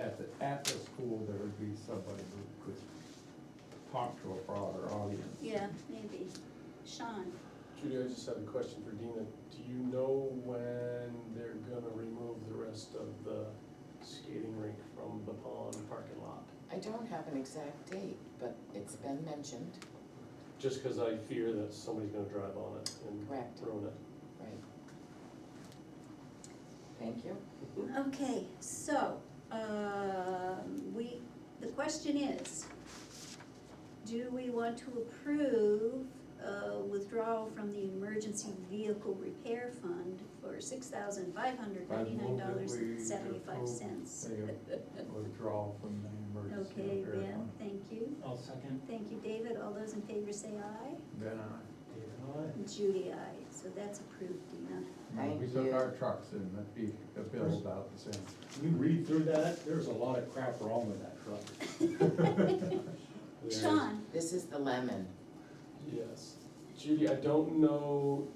at the, at the school, there would be somebody who could talk to a broader audience. Yeah, maybe. Sean, Judy, I just had a question for Dina. Do you know when they're gonna remove the rest of the skating rink from the pond parking lot? I don't have an exact date, but it's been mentioned, Just because I fear that somebody's gonna drive on it Correct. and ruin it. right? Thank you. okay, so, um, we, the question is, do we want to approve uh, withdrawal from the emergency vehicle repair fund for six thousand five hundred I ninety-nine move that dollars we and seventy-five cents? approve the Withdrawal from the emergency Okay, repair Ben, fund. thank you. I'll second. Thank you, David. All those in favor say aye. Ben, I, Judy, aye. So that's approved, Dina. when we Thank took you. our trucks in, that'd be a bill about the same. You read through that, there's a lot of crap wrong with that truck. There's- Sean, This is the lemon. Yes. Judy, I don't know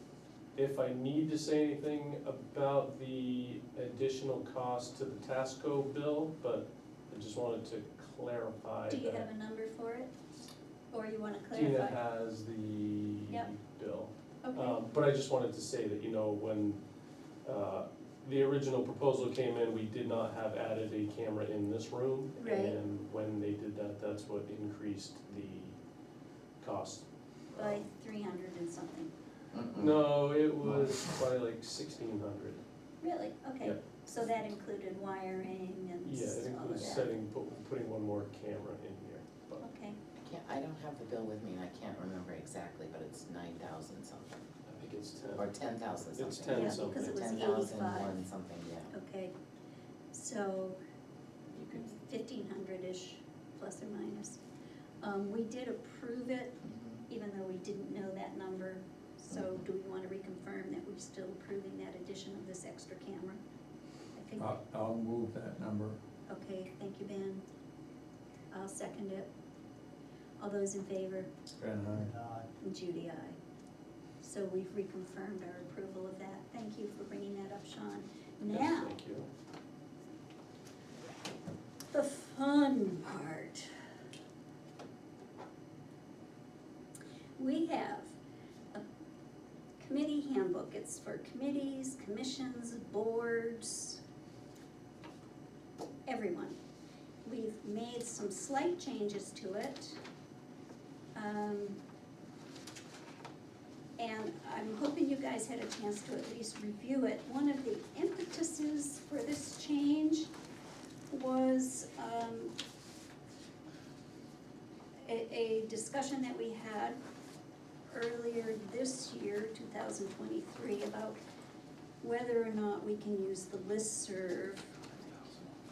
if I need to say anything about the additional cost to the Tasco bill, but I just wanted to clarify do you that have a number for it? Or you wanna Dina clarify? has the Yep. bill. Okay, Um, but I just wanted to say that, you know, when, uh, the original proposal came in, we did not have added a camera in this room. Right. And when they did that, that's what increased the cost. by three hundred and something. No, it was probably like sixteen hundred. Really? Okay, Yeah. so that included wiring and Yeah, it s- all of includes that? setting, pu- putting one more camera in here, but Okay, I can't, I don't have the bill with me and I can't remember exactly, but it's nine thousand something, I think it's or ten. ten thousand something. It's 10 Yeah, something. because it was Ten thousand one 85. something, yeah. okay. So You could, fifteen hundred-ish, plus or minus. Um, we did approve it, mhm. even though we didn't know that number. So Mm-hmm. do we wanna reconfirm that we're still approving that addition of this extra camera? I think. Uh, I'll, I'll move that number. Okay, thank you, Ben. I'll second it. All those in favor? Ben, I. And Judy, aye. So we've reconfirmed our approval of that. Thank you for bringing that up, Sean. Now, Thank you. the fun part. We have a committee handbook. It's for committees, commissions, boards, everyone. We've made some slight changes to it. Um, And I'm hoping you guys had a chance to at least review it. One of the impetuses for this change was um, a, a discussion that we had earlier this year, two thousand twenty-three, about whether or not we can use the listserv.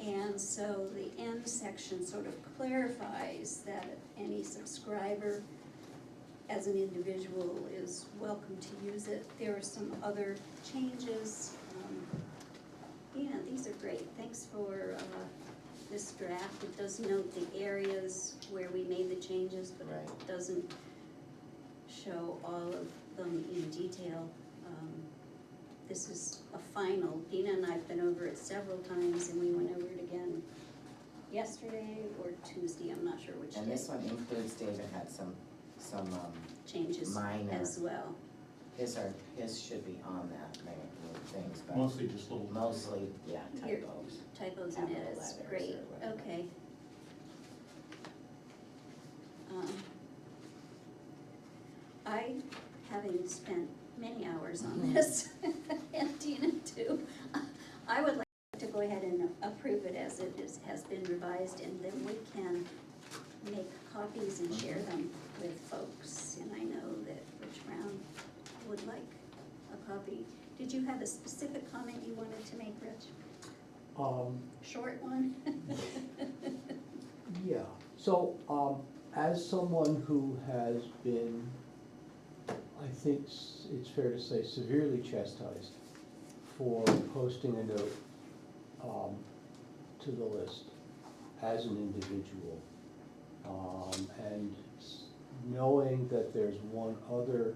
And so the end section sort of clarifies that any subscriber as an individual is welcome to use it. There are some other changes, um, yeah, these are great, thanks for, uh, this draft, it does note the areas where we made the changes, but Right. it doesn't show all of them in detail. Um, This is a final, Dina and I've been over it several times, and we went over it again yesterday or Tuesday, I'm not sure which And day, this one includes, David had some, some, um, changes minor, as well. his are, his should be on that, maybe, little things, but. Mostly just little. Mostly, yeah, Here. typos. typos in it, Capital it's letters or great, whatever. okay. Um, I, having spent many hours on Mhm. this, and Dina too, I would like to go ahead and approve it as it is, has been revised, and then we can make copies and share them with folks, and I know that Rich Brown would like a copy. Did you have a specific comment you wanted to make, Rich? Um, Short one? yeah, so, um, as someone who has been, I think s- it's fair to say severely chastised for posting a note, um, to the list as an individual. Um, and s- knowing that there's one other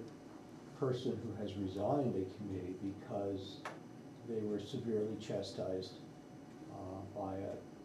person who has resigned a committee because they were severely chastised uh, by a